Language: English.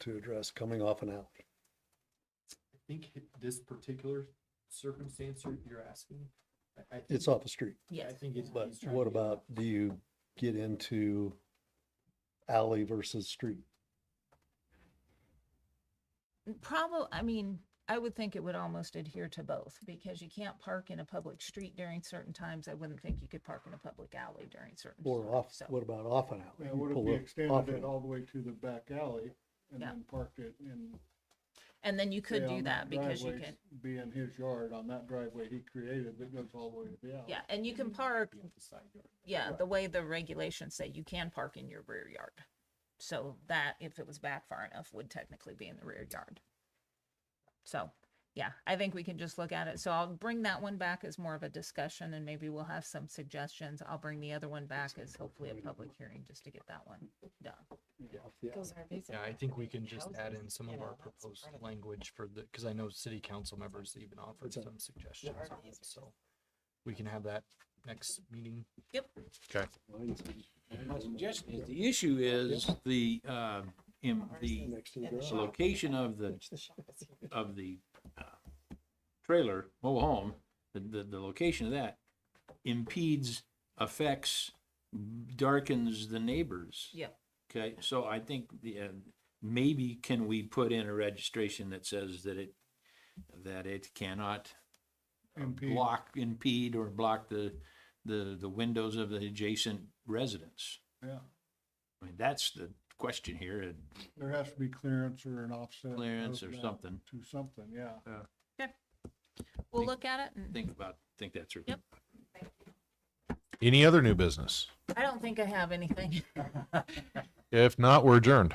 to address coming off an alley. I think hi- this particular circumstance you're, you're asking, I, I. think- It's off a street. I Yes. think it's. But he's trying what to get- about, do you get into alley versus street? Probably, I mean, I would think it would almost adhere to both because you can't park in a public street during certain times. I wouldn't think you could park in a public alley during certain. Or times, off, so- what about off an alley? Yeah, You what if pull we up off extended an it all the way to the back alley and Yeah. then parked it in? And then you could say, do on that because you driveway, can, Be in his yard on that driveway he created that goes all the way to the alley. yeah, and you can park, be in the side yard. yeah, the way the regulations say you can park in your rear yard. So that, if it was back far enough, would technically be in the rear yard. So, yeah, I think we can just look at it. So I'll bring that one back as more of a discussion and maybe we'll have some suggestions. I'll bring the other one back as hopefully a public hearing just to get that one done. off the alley. Those are basically Yeah, I think we can like just add houses, in some you of know, our that's proposed part of it. language for the, because I know city council members even offered It's a- some suggestions Yeah. on it, so. We can have that next meeting. Yep. Okay. Mine's in- My suggestion is, the issue is the, uh, in the Next to the And the garage. shop. location of the, The shop is here. of the uh, trailer, mobile home, the, the, the location of that impedes, affects, darkens the neighbors. Yep. Okay, so I think the, uh, maybe can we put in a registration that says that it, that it cannot Impede. block, impede or block the, the, the windows of the adjacent residence? Yeah, I mean, that's the question here, and there has to be clearance or an offset. Clearance of or that something. To something, yeah. We'll Think- look at it and think about, think that through. Yep. Any other new business? I don't think I have anything. If not, we're adjourned.